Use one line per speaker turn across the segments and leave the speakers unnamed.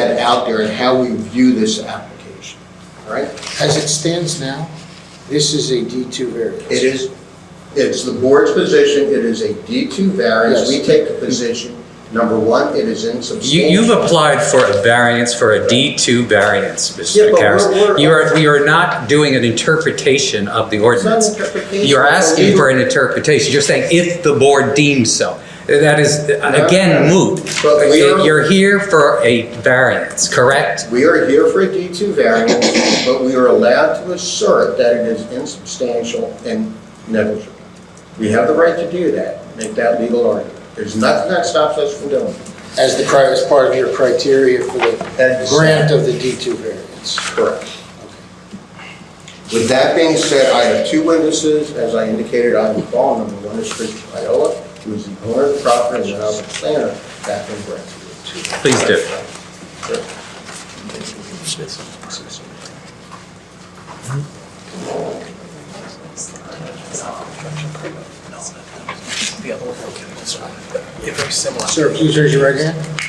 out there and how we view this application, all right?
As it stands now, this is a D2 variance.
It is, it's the board's position, it is a D2 variance.
Yes.
We take the position, number one, it is insubstantial.
You, you've applied for a variance, for a D2 variance,
Yeah,
Mr.
but we're-
Karas.
we're-
You are, you are not doing an interpretation of the
It's not an
ordinance.
interpretation.
You're
It's a
asking
legal-
for an interpretation, you're saying if the board deems so. That is, again,
no.
moot.
But we are-
You're here for a variance, correct?
We are here for a D2 variance, but we are allowed to assert that it is insubstantial and negligible. We have the right to do that, make that legal argument. There's nothing that stops us from doing it.
As the, cri- as part of your criteria for the
That's
grant of the D2 variance.
Correct. With that being said, I have two witnesses, as I indicated on the call. Number one is Chris Viola, who is the owner of the property, and then I'm the planner, Catherine Brett.
Please do.
Very similar.
Sir, please raise your right hand.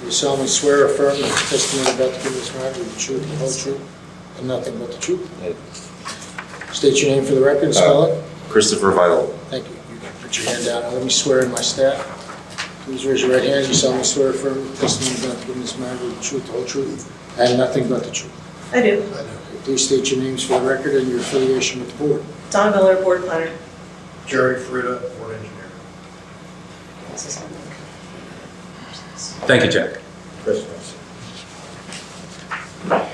Do you solemnly swear or affirm that the testimony about to give this matter will be the truth, the whole truth, and nothing but the truth? State your name for the record, and spell it.
Christopher Vital.
Thank you. You can put your hand down and let me swear in my staff. Please raise your right hand. You solemnly swear or affirm the testimony about to give this matter will be the truth, the whole truth, and nothing but the truth.
I do.
Please state your names for the record and your affiliation with the board.
Don Miller, board planner.
Jerry Fruda, board engineer.
Thank you, Jack.
Chris Nelson.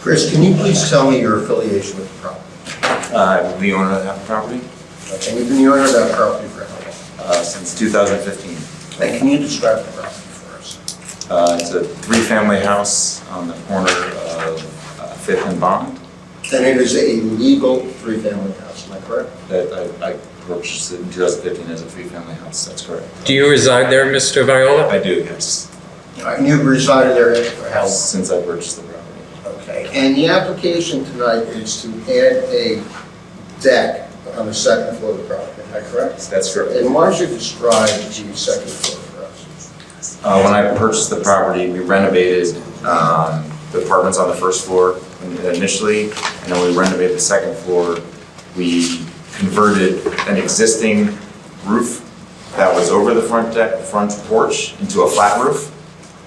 Chris, can you please tell me your affiliation with the property?
Uh, I'm the owner of that property
Okay, you've been the owner of that property for how long?
uh, since 2015.
And can you describe the property for us?
Uh, It's a three-family house on the corner of uh, Fifth and Bond
Then it is a legal three-family house, am I correct?
that I I purchased it in 2015 as a three-family house, that's correct.
Do you reside there, Mr. Viola?
I do, yes,
And you've resided there for how long?
since I purchased the property.
Okay, and the application tonight is to add a deck on the second floor of the property, am I correct?
That's correct.
And why don't you describe the second floor for us?
Uh, When I purchased the property, we renovated um, the apartments on the first floor initially, and then we renovated the second floor. We converted an existing roof that was over the front deck, front porch, into a flat roof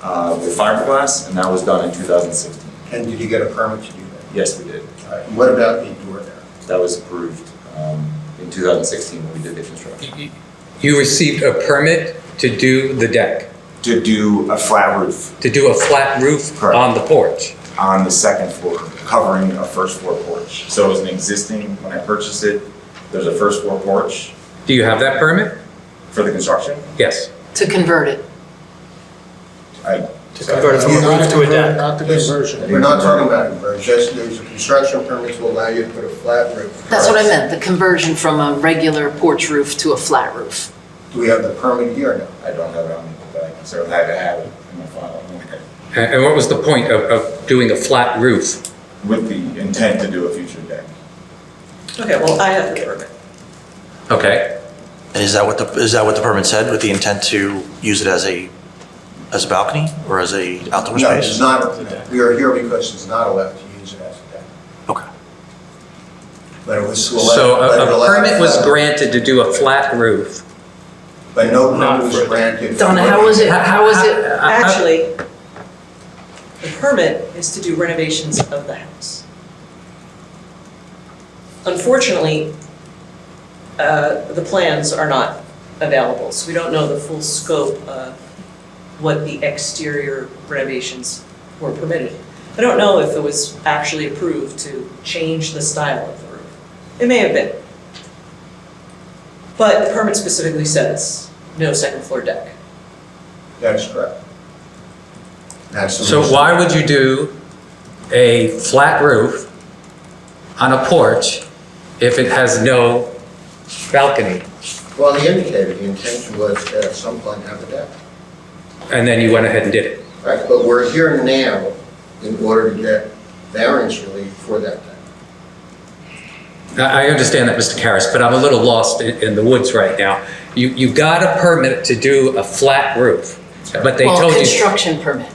uh, with fiberglass, and that was done in 2016.
And did you get a permit to do that?
Yes, we did.
All right, and what about the door there?
That was approved um, in 2016 when we did the construction.
You- You received a permit to do the deck,
To do a flat roof
to do a flat roof
Correct.
on the porch.
on the second floor, covering a first floor porch. So it was an existing, when I purchased it, there's a first floor porch
Do you have that permit?
for the construction.
Yes.
To convert it.
I,
To convert it from a roof to a deck.
Not the conversion.
We're not talking about conversion, just there's a construction permit to allow you to put a flat roof.
That's what I meant, the conversion from a regular porch roof to a flat roof.
Do we have the permit here or no?
I don't have it on me, but I certainly had to have it in my file.
And and what was the point of, of doing a flat roof?
With the intent to do a future deck.
Okay, well, I have the permit.
Okay,
And is that what the, is that what the permit said, with the intent to use it as a, as a balcony or as a outdoor
No, it's
space?
not, we are here because it's not allowed to use it as a deck.
Okay.
But it was.
so uh,
but it
a, a
allowed-
permit was granted to do a flat roof.
But no permit
Not
was
for-
granted.
Donna, how was it, how was it?
Actually, the permit is to do renovations of the house. Unfortunately, uh, the plans are not available, so we don't know the full scope of what the exterior renovations were permitted. I don't know if it was actually approved to change the style of the roof. It may have been. But the permit specifically says, no second floor deck.
That's correct. That's the
So
reason.
why would you do a flat roof on a porch if it has no balcony?
Well, he indicated the intention was to at some point have a deck.
And then you went ahead and did it.
Right, but we're here now in order to get variance relief for that deck.
I I understand that, Mr. Karas, but I'm a little lost in, in the woods right now. You, you got a permit to do a flat roof, but they
Well,
told you.
construction permit.